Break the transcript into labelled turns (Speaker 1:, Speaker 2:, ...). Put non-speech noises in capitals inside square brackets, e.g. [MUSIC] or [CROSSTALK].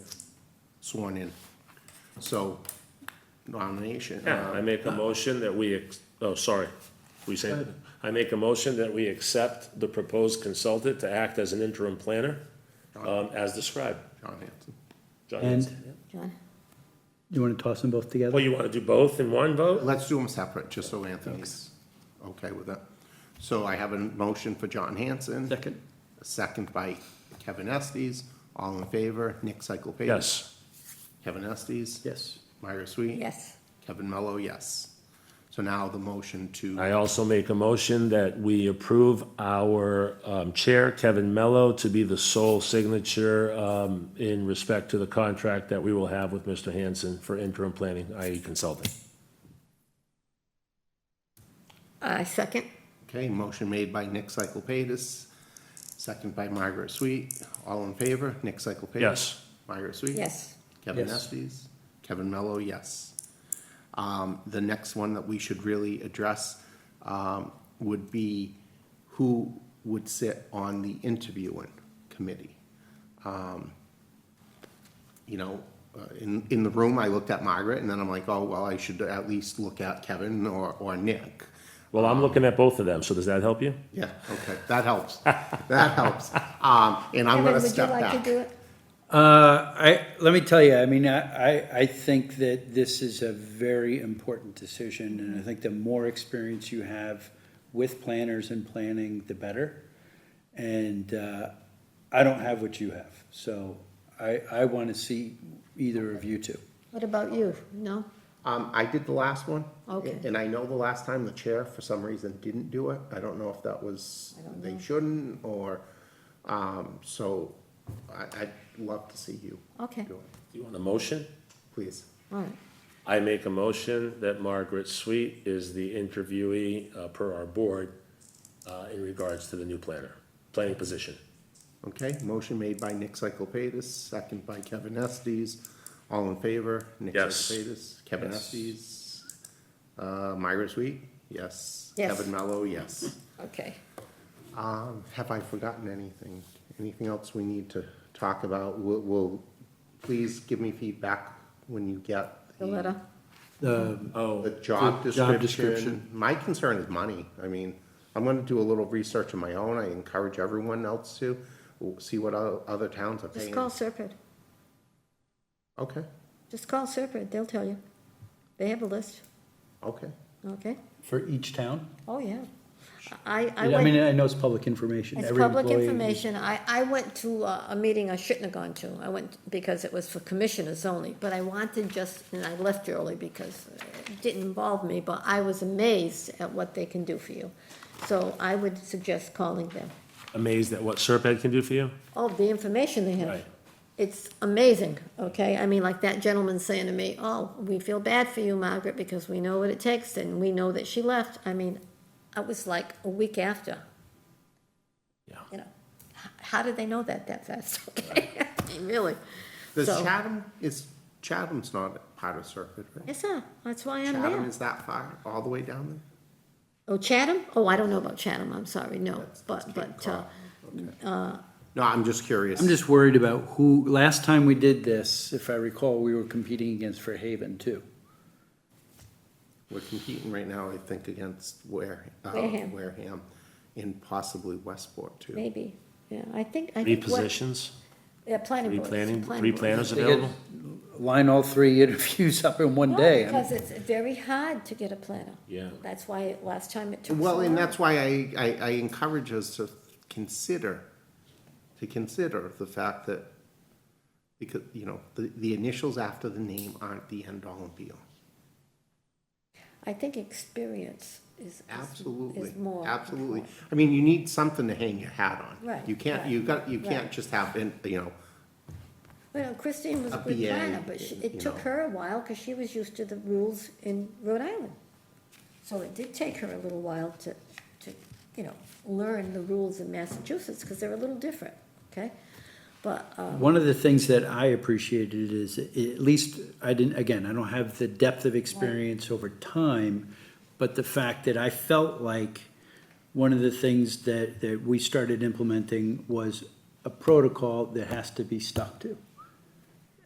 Speaker 1: sworn in. So nomination. uh,
Speaker 2: Yeah, I make a motion that we, ex- oh, sorry, we say, I make a motion that we accept the proposed consultant to act as an interim planner, um, as described.
Speaker 1: John Hanson.
Speaker 2: John
Speaker 3: And
Speaker 2: Hanson, yeah.
Speaker 4: John?
Speaker 3: you want to toss them both together?
Speaker 2: Well, you wanna do both in one vote?
Speaker 1: Let's do them separate, just so Anthony's okay with it. So I have a motion for John Hanson.
Speaker 3: Second.
Speaker 1: A second by Kevin Estes. All in favor, Nick Cyclepatis.
Speaker 2: Yes,
Speaker 1: Kevin Estes.
Speaker 3: Yes.
Speaker 1: Myra Sweet.
Speaker 4: Yes.
Speaker 1: Kevin Mello, yes. So now the motion to,
Speaker 2: I also make a motion that we approve our, um, chair, Kevin Mello, to be the sole signature, um, in respect to the contract that we will have with Mr. Hanson for interim planning, i.e. consulting.
Speaker 4: I second.
Speaker 1: okay, motion made by Nick Cyclepatis, second by Margaret Sweet. All in favor, Nick Cyclepatis.
Speaker 2: Yes.
Speaker 1: Margaret Sweet.
Speaker 4: Yes.
Speaker 1: Kevin
Speaker 3: Yes.
Speaker 1: Estes, Kevin Mello, yes. Um, the next one that we should really address, um, would be who would sit on the interviewing committee. Um, You know, uh, in, in the room, I looked at Margaret and then I'm like, oh, well, I should at least look at Kevin or, or Nick.
Speaker 2: Well, I'm looking at both of them, so does that help you?
Speaker 1: Yeah, okay, that helps, that helps. Um, and I'm
Speaker 4: Kevin,
Speaker 1: gonna
Speaker 4: would you
Speaker 1: step
Speaker 4: like to do
Speaker 1: back.
Speaker 4: it?
Speaker 3: Uh, I, let me tell you, I mean, I, I- I think that this is a very important decision, and I think the more experience you have with planners and planning, the better. And, uh, I don't have what you have, so I, I want to see either of you two.
Speaker 4: What about you? No?
Speaker 1: Um, I did the last one.
Speaker 4: Okay.
Speaker 1: And I know the last time the chair, for some reason, didn't do it. I don't know if that was,
Speaker 4: I don't
Speaker 1: they
Speaker 4: know.
Speaker 1: shouldn't, or, um, so I, I'd love to see you
Speaker 4: Okay,
Speaker 1: do it,
Speaker 2: Do you want a motion?
Speaker 1: please.
Speaker 4: all right.
Speaker 2: I make a motion that Margaret Sweet is the interviewee uh, per our board uh, in regards to the new planner, planning position.
Speaker 1: Okay, motion made by Nick Cyclepatis, second by Kevin Estes. All in favor? Nick
Speaker 2: Yes.
Speaker 1: Cyclepatis, Kevin
Speaker 3: Yes.
Speaker 1: Estes, uh, Myra Sweet, yes.
Speaker 4: Yes.
Speaker 1: Kevin Mello, yes.
Speaker 4: Okay.
Speaker 1: Um, have I forgotten anything? Anything else we need to talk about? Will, will, please give me feedback when you get.
Speaker 4: The letter?
Speaker 2: Oh,
Speaker 1: The job
Speaker 3: The job
Speaker 1: description.
Speaker 3: description.
Speaker 1: My concern is money. I mean, I'm gonna do a little research of my own. I encourage everyone else to. We'll See what o- other towns are
Speaker 4: Just
Speaker 1: paying.
Speaker 4: call Serpent.
Speaker 1: Okay,
Speaker 4: Just call Serpent, they'll tell you. They have a list,
Speaker 1: okay.
Speaker 4: okay?
Speaker 3: For each town?
Speaker 4: Oh, yeah. I, I
Speaker 3: I mean,
Speaker 4: went,
Speaker 3: I know it's public information.
Speaker 4: it's
Speaker 3: Every
Speaker 4: public
Speaker 3: employee-
Speaker 4: information. I, I went to uh, a, a meeting I shouldn't have gone to. I went because it was for commissioners only, but I wanted just, and I left early because it didn't involve me, but I was amazed at what they can do for you. So I would suggest calling them.
Speaker 2: amazed at what Serpent can do for you?
Speaker 4: all the information they have.
Speaker 2: Right.
Speaker 4: It's amazing, okay? I mean, like that gentleman saying to me, oh, we feel bad for you, Margaret, because we know what it takes and we know that she left. I mean, it was like a week after.
Speaker 2: Yeah.
Speaker 4: You know, h- how did they know that that fast, [LAUGHS] okay? I mean, Really?
Speaker 1: Does
Speaker 4: So-
Speaker 1: Chatham, is, Chatham's not part of Serpent, right?
Speaker 4: Yes, sir, that's why I'm
Speaker 1: Chatham
Speaker 4: there.
Speaker 1: is that far, all the way down there?
Speaker 4: Oh, Chatham? Oh, I don't know about Chatham, I'm sorry, no,
Speaker 1: That's-
Speaker 4: but,
Speaker 1: that's
Speaker 4: but, uh,
Speaker 1: No, I'm just curious.
Speaker 3: I'm just worried about who, last time we did this, if I recall, we were competing against Fairhaven too.
Speaker 1: We're competing right now, I think, against Ware, uh,
Speaker 4: Wareham.
Speaker 1: Wareham, and possibly Westport too.
Speaker 4: maybe, yeah, I think, I
Speaker 2: Three
Speaker 4: think. what-
Speaker 2: positions,
Speaker 4: Yeah, planning
Speaker 2: three
Speaker 4: boards.
Speaker 2: planning,
Speaker 4: planning
Speaker 2: three
Speaker 4: boards.
Speaker 2: planners
Speaker 3: They could
Speaker 2: available?
Speaker 3: Line all three [LAUGHS] interviews up in one
Speaker 4: No,
Speaker 3: day. I mean,
Speaker 4: Because it's very hard to get a planner.
Speaker 2: Yeah.
Speaker 4: That's why last time it took so long.
Speaker 1: Well, and that's why I, I, I encourage us to consider, to consider the fact that, because, you know, the, the initials after the name aren't the end all and be all.
Speaker 4: I think experience is. is-
Speaker 1: Absolutely,
Speaker 4: Is more.
Speaker 1: absolutely. I mean, you need something to hang your hat on.
Speaker 4: Right,
Speaker 1: You can't,
Speaker 4: right,
Speaker 1: you got, you can't
Speaker 4: right.
Speaker 1: just have, in- you know,
Speaker 4: Well, Christine was
Speaker 1: A
Speaker 4: a good
Speaker 1: BA,
Speaker 4: planner, but she,
Speaker 1: you
Speaker 4: it took
Speaker 1: know.
Speaker 4: her a while because she was used to the rules in Rhode Island. So it did take her a little while to, to, you know, learn the rules in Massachusetts because they're a little different, okay? But, uh,
Speaker 3: One of the things that I appreciated is, at least, I didn't, again, I don't have the depth of experience over time, but the fact that I felt like one of the things that, that we started implementing was a protocol that has to be stuck to.